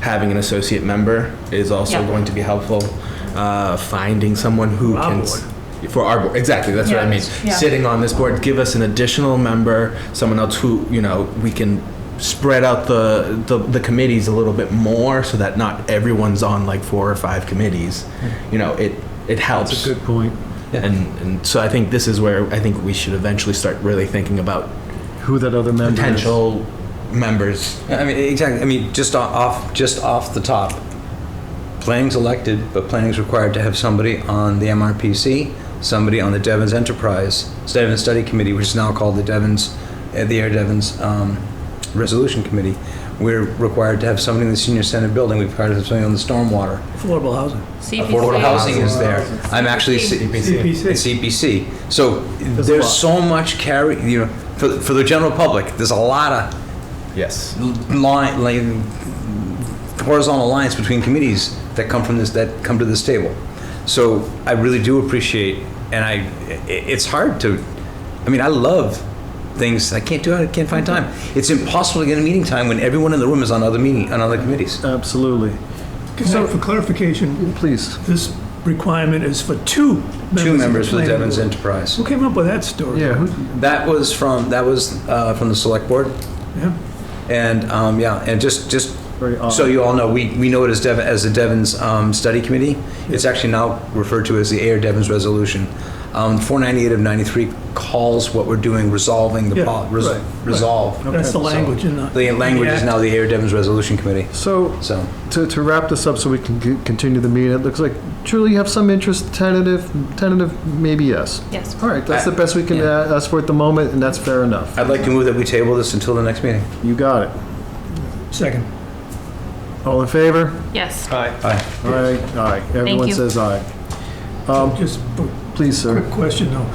having an associate member is also Yeah. going to be helpful. Uh, finding someone who For our can. s- For our board, exactly, that's what I Yeah, mean. yeah. Sitting on this board, give us an additional member, someone else who, you know, we can spread out the, the, the committees a little bit more so that not everyone's on like four or five committees. You know, it, it helps. Hmm. That's a good point. And, and so I think this is where I think we should eventually start really thinking about Who that other member is. potential members. I mean, exactly, I mean, just o- off, just off the top, planning's elected, but planning's required to have somebody on the MRPC, somebody on the Devon's Enterprise, Devon's Study Committee, which is now called the Devon's, uh, the Air Devon's um, Resolution Committee. We're required to have somebody in the senior senate building, we're required to have somebody on the stormwater. Affordable housing. Affordable housing is there. I'm actually. CPC. It's CPC. So a there's lot. so much carry, you know, for, for the general public, there's a lot of Yes. line, like horizontal lines between committees that come from this, that come to this table. So I really do appreciate, and I, i- it's hard to, I mean, I love things, I can't do it, I can't find time. It's impossible to get a meeting time when everyone in the room is on other meeting, on other committees. Absolutely. Can I- For clarification, Please. this requirement is for two members. Two of the members for the planning Devon's board. Enterprise. Who came up with that story? Yeah, who, That was from, that was uh, from the select board. Yeah. And, um, yeah, and just, just, Very odd. so you all know, we, we know it as Devon, as the Devon's, um, Study Committee. It's actually now referred to as the Air Devon's Resolution. Um, four ninety-eight of ninety-three calls what we're doing resolving the, Yeah, pol- res- right, resolve. That's the So, language in the- The language is now the Air Devon's Resolution Committee, so so. to, to wrap this up so we can c- continue the meeting, it looks like truly you have some interest, tentative, tentative, maybe yes. Yes. All right, that's the best we can uh, ask for at the moment, and that's fair enough. I'd like to move that we table this until the next meeting. You got it. Second. All in favor? Yes. Aye. All right, aye. Everyone you. says aye. Um, Just a Please, quick sir. question though.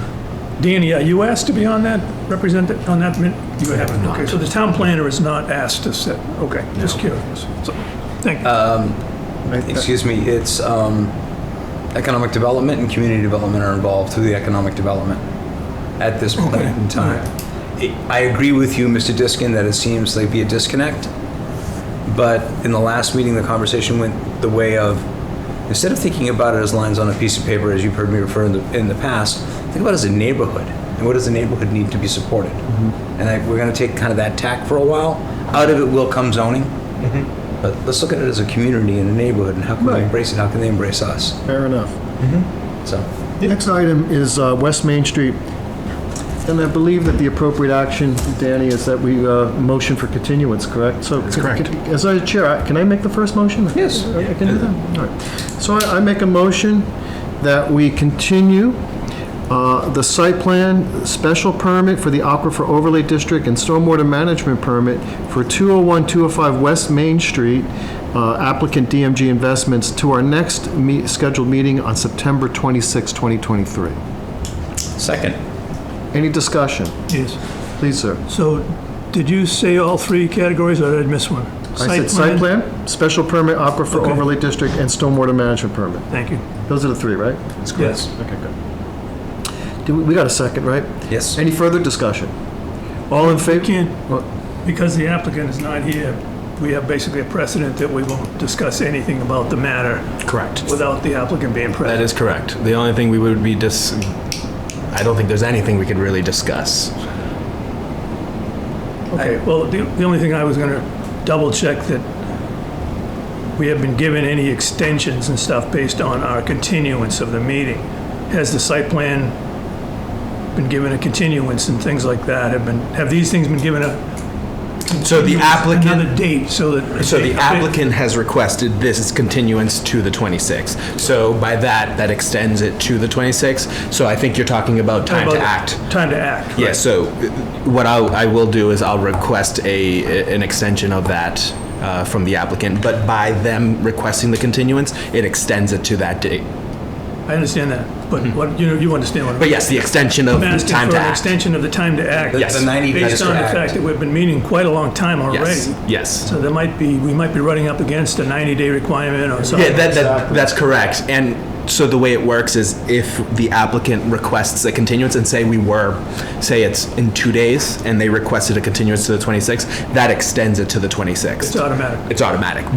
Danny, are you asked to be on that, represented on that? min- You have not. Okay, so the town planner is not asked to sit. Okay, just curious. So, Thank you. I- Excuse me, it's, um, economic development and community development are involved through the economic development at this point in time. I- I agree with you, Mr. Diskin, that it seems like be a disconnect, but in the last meeting, the conversation went the way of, instead of thinking about it as lines on a piece of paper, as you've heard me refer in the, in the past, think about it as a neighborhood, and what does the neighborhood need to be supported? And I, we're gonna take kind of that tack for a while, out of it will come zoning, but let's look at it as a community and a neighborhood, and how can we Right. embrace it, how can they embrace us, Fair enough. so. Next item is uh, West Main Street. And I believe that the appropriate action, Danny, is that we uh, motion for continuance, correct? So, c- correct. c- As I chair, I- can I make the first motion? Yes. I I can do that? All right. So I I make a motion that we continue uh, the site plan, special permit for the Aquifer Overlay District and stormwater management permit for 201, 205 West Main Street, uh, applicant DMG Investments, to our next me- scheduled meeting on September 26, 2023. Second. Any discussion? Yes. Please, sir. So did you say all three categories or did I miss one? I said site plan, special permit, aquifer Okay. overlay district, and stormwater management permit. Thank you. Those are the three, right? Yes. Okay, good. Do, we- we got a second, right? Yes. Any further discussion? All in favor? Can't, Well, Because the applicant is not here, we have basically a precedent that we won't discuss anything about the matter Correct. without the applicant being That present. is correct. The only thing we would be dis. I don't think there's anything we could really discuss. Okay, well, the the only thing I was going to double check that we have been given any extensions and stuff based on our continuance of the meeting. Has the site plan been given a continuance and things like that? Have been, have these things been given a, So the another applicant. date so that? So the applicant has requested this continuance to the 26th. So by that, that extends it to the 26th. So I think you're talking about time to About act. Time to act. Yeah, so uh, what I'll, I will do is I'll request a, an extension of that uh, from the applicant, but by them requesting the continuance, it extends it to that date. I understand that, but what, you know, you understand what I'm Hmm. But yes, the extension of I'm the asking time for to an act. extension of the time to act. Yes. The 90 days Based to on the act. fact that we've been meeting quite a long time already. Yes, yes. So there might be, we might be running up against a 90-day requirement or something. Yeah, that, that, that's correct. And so the way it works is if the applicant requests a continuance and say we were, say it's in two days and they requested a continuance to the 26th, that extends it to the It's 26th. automatic. It's automatic.